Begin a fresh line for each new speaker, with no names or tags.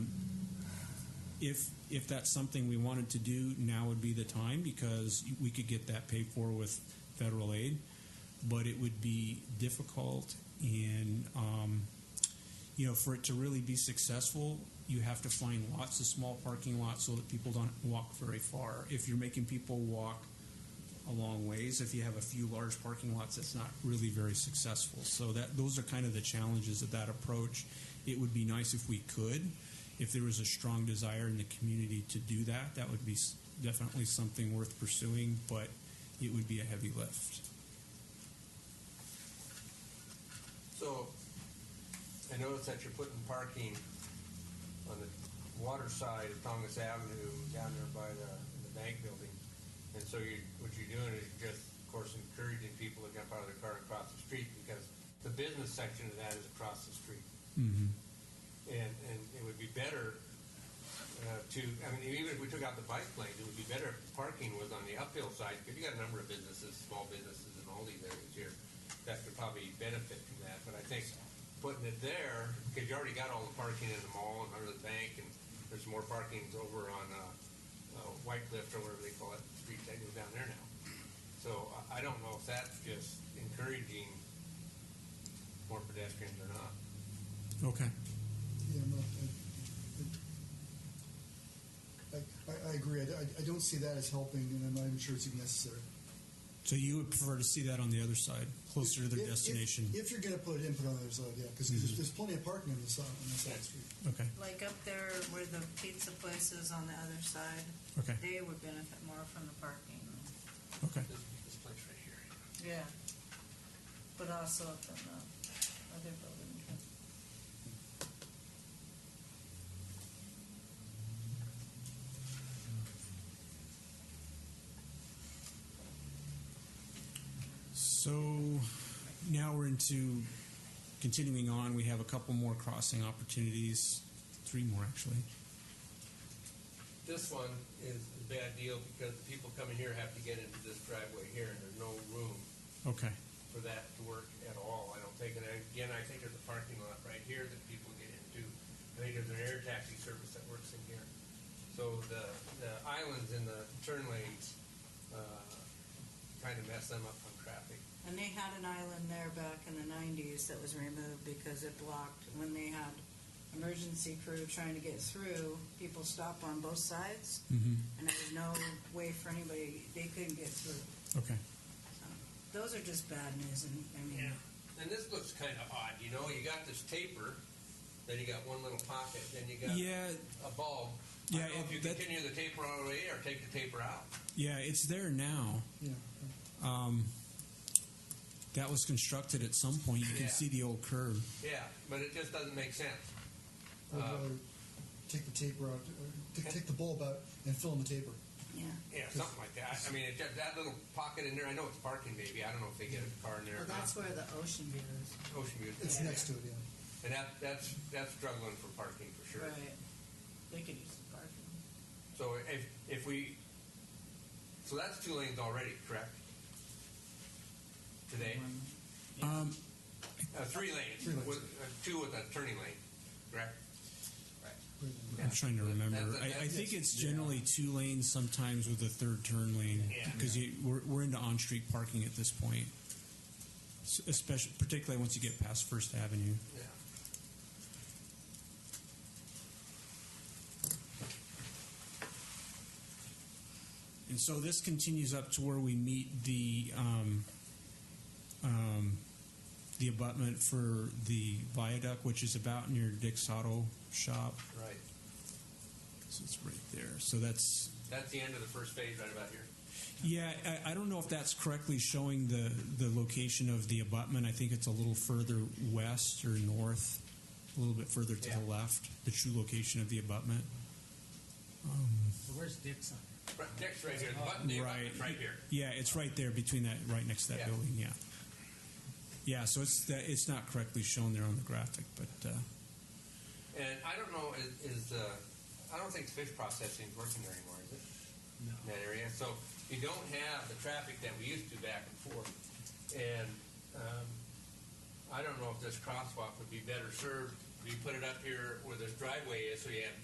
if if that's something we wanted to do, now would be the time because we could get that paid for with federal aid. But it would be difficult, and um, you know, for it to really be successful, you have to find lots of small parking lots so that people don't walk very far. If you're making people walk a long ways, if you have a few large parking lots, that's not really very successful. So that those are kind of the challenges of that approach. It would be nice if we could, if there was a strong desire in the community to do that, that would be s- definitely something worth pursuing, but it would be a heavy lift.
So, I noticed that you're putting parking on the water side of Tongass Avenue down there by the, the bank building. And so you, what you're doing is you're just, of course, encouraging people to jump out of their car and cross the street because the business section of that is across the street. And, and it would be better uh, to, I mean, even if we took out the bike lanes, it would be better if parking was on the uphill side, because you got a number of businesses, small businesses in all these areas here, that could probably benefit from that, but I think putting it there, because you already got all the parking in the mall and under the bank, and there's more parkings over on, uh, uh, White Cliff or whatever they call it, the street that goes down there now. So I, I don't know if that's just encouraging more pedestrians or not.
Okay.
Yeah, I'm not, I- I, I, I agree. I, I- I don't see that as helping, and I'm not even sure it's even necessary.
So you would prefer to see that on the other side, closer to
If-
their
if-
destination? Mm-hmm.
If, you're going to put input on the other side, yeah, because there's, there's plenty of parking on the side, on the side street.
Okay,
Like up there where the pizza place is on the other side,
okay,
they would benefit more from the parking.
okay.
This, this place right here.
Yeah. But also up in the other building.
So now we're into continuing on. We have a couple more crossing opportunities, three more actually.
This one is a bad deal because the people coming here have to get into this driveway here and there's no room
Okay,
for that to work at all, I don't think. And again, I think there's a parking lot right here that people get into. I think there's an air taxi service that works in here. So the, the islands in the turn lanes, uh, kind of mess them up on traffic.
And they had an island there back in the nineties that was removed because it blocked, when they had emergency crew trying to get through, people stopped on both sides. And there was no way for anybody, they couldn't get through.
okay.
So, Those are just bad news and, I mean,
And this looks kind of odd, you know, you got this taper, then you got one little pocket, then you got
Yeah,
a bulb. I
Yeah,
don't know if
it-
you
that-
continue the taper all the way or take the taper out.
yeah, it's there now.
Yeah.
Um, that was constructed at some point. You can
Yeah.
see the old curb.
Yeah, but it just doesn't make sense.
I'd
Uh,
rather take the taper out, or t- take the bulb out and fill in the taper.
yeah.
Yeah, something like that. I- I mean, it, just- that little pocket in there, I know it's parking maybe. I don't know if they get a car in there
Well,
or not.
that's where the ocean view is.
Ocean View.
It's
Yeah.
next to it, yeah.
And that, that's, that's struggling for parking for sure.
Right. They could use the parking.
So if, if we, so that's two lanes already, correct? Today?
Um,
Uh, three lanes.
Three lanes.
With, uh, two with a turning lane, correct?
I'm trying to remember.
That's-
I, I
that's-
think it's generally two lanes, sometimes with a third turn lane,
Yeah.
because we're, we're into on-street parking at this point, S- especially particularly once you get past First Avenue.
Yeah.
And so this continues up to where we meet the um, um, the abutment for the viaduct, which is about near Dick's Auto Shop.
Right.
So it's right there. So that's
That's the end of the first phase right about here.
Yeah, I, I don't know if that's correctly showing the, the location of the abutment. I think it's a little further west or north, a little bit further to the
Yeah.
left, the true location of the abutment.
So where's Dixon?
Right, next right here, the button, the abutment's right here.
Yeah, it's right there between that, right next to that
Yeah.
building. Yeah. Yeah, so it's that it's not correctly shown there on the graphic, but uh,
And I don't know, is, is uh, I don't think fish processing is working there anymore, is it?
No.
In that area. So you don't have the traffic that we used to back and forth. And um, I don't know if this crosswalk would be better served. if You put it up here where this driveway is, so you have